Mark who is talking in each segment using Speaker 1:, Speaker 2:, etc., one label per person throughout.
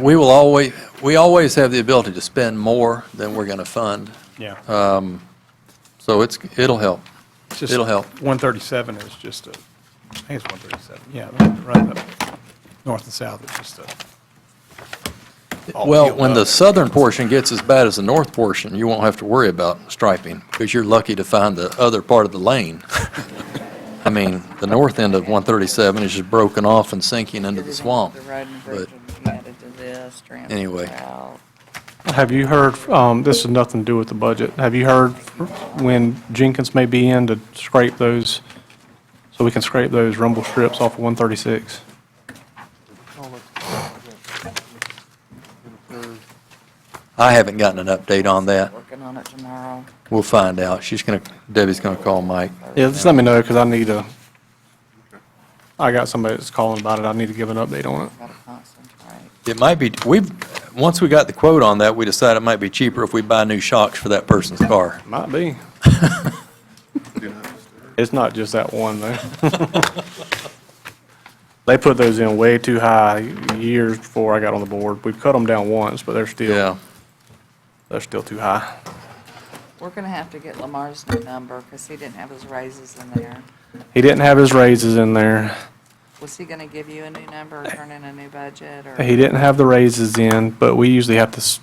Speaker 1: We will always, we always have the ability to spend more than we're going to fund,
Speaker 2: Yeah.
Speaker 1: so it's, it'll help.
Speaker 2: It's just-
Speaker 1: it'll help.
Speaker 2: 137 is just a, I think it's 137, yeah, right up, north and south is just a. all
Speaker 1: Well,
Speaker 2: peeled
Speaker 1: when
Speaker 2: up.
Speaker 1: the southern portion gets as bad as the north portion, you won't have to worry about striping, because you're lucky to find the other part of the lane. I mean, the north end of 137 is just broken off and sinking into the swamp.
Speaker 3: The road and bridge
Speaker 1: But
Speaker 3: would be added to this, transfer
Speaker 1: Anyway.
Speaker 3: out.
Speaker 4: Have you heard, um, this has nothing to do with the budget, have you heard when Jenkins may be in to scrape those, so we can scrape those rumble strips off of 136?
Speaker 1: I haven't gotten an update on that.
Speaker 3: Working on it tomorrow.
Speaker 1: We'll find out. She's going to, Debbie's going to call Mike.
Speaker 4: Yeah, just let me know, because I need to, I got somebody that's calling about it, I need to give an update on it.
Speaker 3: Got to concentrate.
Speaker 1: It might be, we've, once we got the quote on that, we decided it might be cheaper if we buy new shocks for that person's car.
Speaker 4: Might be. It's not just that one, though. They put those in way too high years before I got on the board. We've cut them down once, but they're still, they're still too high.
Speaker 3: We're going to have to get Lamar's new number because he didn't have his raises in there.
Speaker 4: He didn't have his raises in there.
Speaker 3: Was he going to give you a new number or turn in a new budget or?
Speaker 4: He didn't have the raises in, but we usually have to s-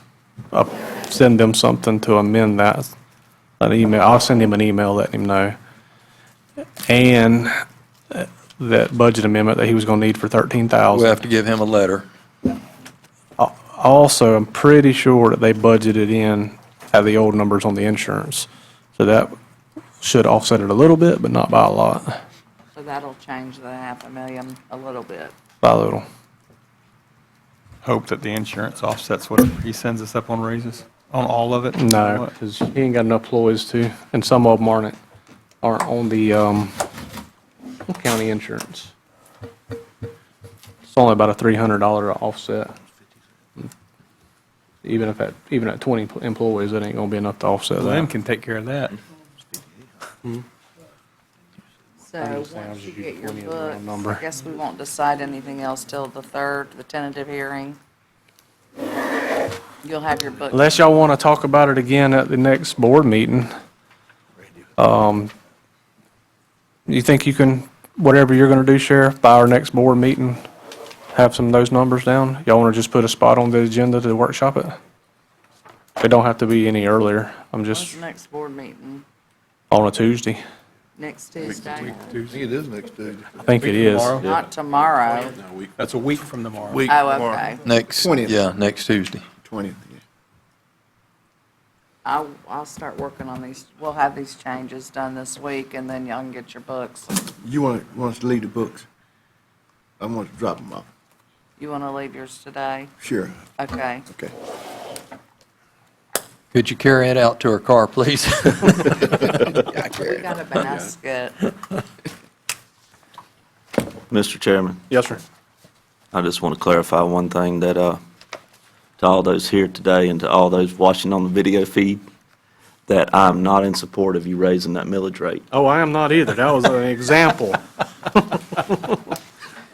Speaker 4: up- send them something to amend that, an email. I'll send him an email letting him know. And uh, that budget amendment that he was going to need for 13,000.
Speaker 1: We'll have to give him a letter.
Speaker 4: Also, I'm pretty sure that they budgeted in at the old numbers on the insurance. So that should offset it a little bit, but not by a lot,
Speaker 3: So that'll change the half a million a little bit.
Speaker 4: by a little.
Speaker 2: Hope that the insurance offsets whatever he sends us up on raises, on all of it?
Speaker 4: No, because he ain't got enough employees to, and some of them aren't, aren't on the um, county insurance. It's only about a $300 offset. Even if at, even at 20 employees, that ain't going to be enough to offset
Speaker 2: Lynn
Speaker 4: that.
Speaker 2: can take care of that.
Speaker 3: So
Speaker 4: just saying, I was
Speaker 3: once you
Speaker 4: just
Speaker 3: get
Speaker 4: using
Speaker 3: your
Speaker 4: plenty of the wrong
Speaker 3: books,
Speaker 4: number.
Speaker 3: I guess we won't decide anything else till the third, the tentative hearing. You'll have your books.
Speaker 4: Unless y'all want to talk about it again at the next board meeting. Um, You think you can, whatever you're going to do, Sheriff, by our next board meeting, have some of those numbers down? Y'all want to just put a spot on the agenda to workshop it? It don't have to be any earlier. I'm
Speaker 3: When's
Speaker 4: just
Speaker 3: the next board meeting?
Speaker 4: on a Tuesday.
Speaker 3: Next Tuesday?
Speaker 5: I think it is next Tuesday.
Speaker 4: I think it is.
Speaker 2: Tomorrow?
Speaker 3: Not tomorrow.
Speaker 2: That's a week from tomorrow.
Speaker 5: Week
Speaker 3: Oh,
Speaker 5: tomorrow.
Speaker 3: okay.
Speaker 1: Next,
Speaker 5: 20th.
Speaker 1: yeah, next Tuesday.
Speaker 5: 20th, yeah.
Speaker 3: I'll, I'll start working on these, we'll have these changes done this week, and then y'all can get your books.
Speaker 5: You want, want us to leave the books? I want to drop them off.
Speaker 3: You want to leave yours today?
Speaker 5: Sure,
Speaker 3: Okay.
Speaker 5: okay.
Speaker 1: Could you carry it out to her car, please?
Speaker 3: We got a basket.
Speaker 6: Mr. Chairman,
Speaker 4: Yes, sir.
Speaker 6: I just want to clarify one thing that, uh, to all those here today and to all those watching on the video feed, that I'm not in support of you raising that millage rate.
Speaker 4: Oh, I am not either. That was an example.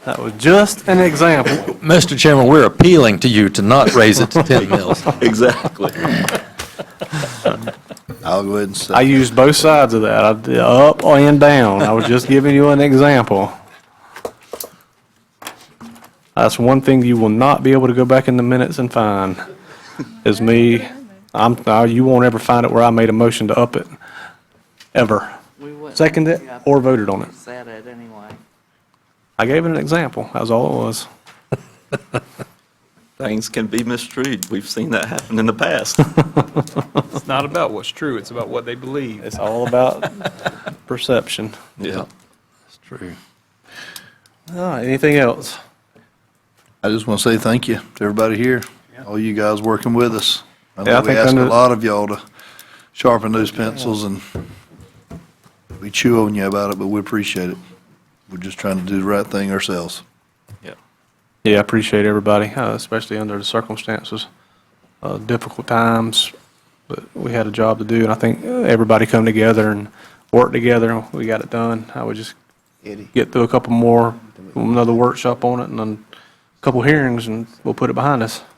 Speaker 4: That was just an example.
Speaker 1: Mr. Chairman, we're appealing to you to not raise it to 10 mils.
Speaker 6: Exactly.
Speaker 5: I'll go ahead and say.
Speaker 4: I used both sides of that, I did up and down. I was just giving you an example. That's one thing you will not be able to go back in the minutes and find, is me, I'm, uh, you won't ever find it where I made a motion to up it, ever.
Speaker 3: We wouldn't-
Speaker 4: Second it
Speaker 3: Yeah,
Speaker 4: or voted on it.
Speaker 3: Said it anyway.
Speaker 4: I gave it an example, that's all it was.
Speaker 6: Things can be misconstrued. We've seen that happen in the past.
Speaker 2: It's not about what's true, it's about what they believe.
Speaker 4: It's all about perception.
Speaker 6: Yeah.
Speaker 1: That's true.
Speaker 4: All right, anything else?
Speaker 5: I just want to say thank you to everybody here, all you guys working with us. I
Speaker 4: Yeah, I
Speaker 5: know we
Speaker 4: think
Speaker 5: ask a
Speaker 4: under-
Speaker 5: lot of y'all to sharpen those pencils, and we chew on you about it, but we appreciate it. We're just trying to do the right thing ourselves.
Speaker 6: Yeah.
Speaker 4: Yeah, I appreciate everybody, uh, especially under the circumstances, uh, difficult times. But we had a job to do, and I think uh, everybody come together and work together. and We got it done. I would just
Speaker 5: Eddie.
Speaker 4: get through a couple more, another workshop on it, and then a couple hearings, and we'll put it behind us.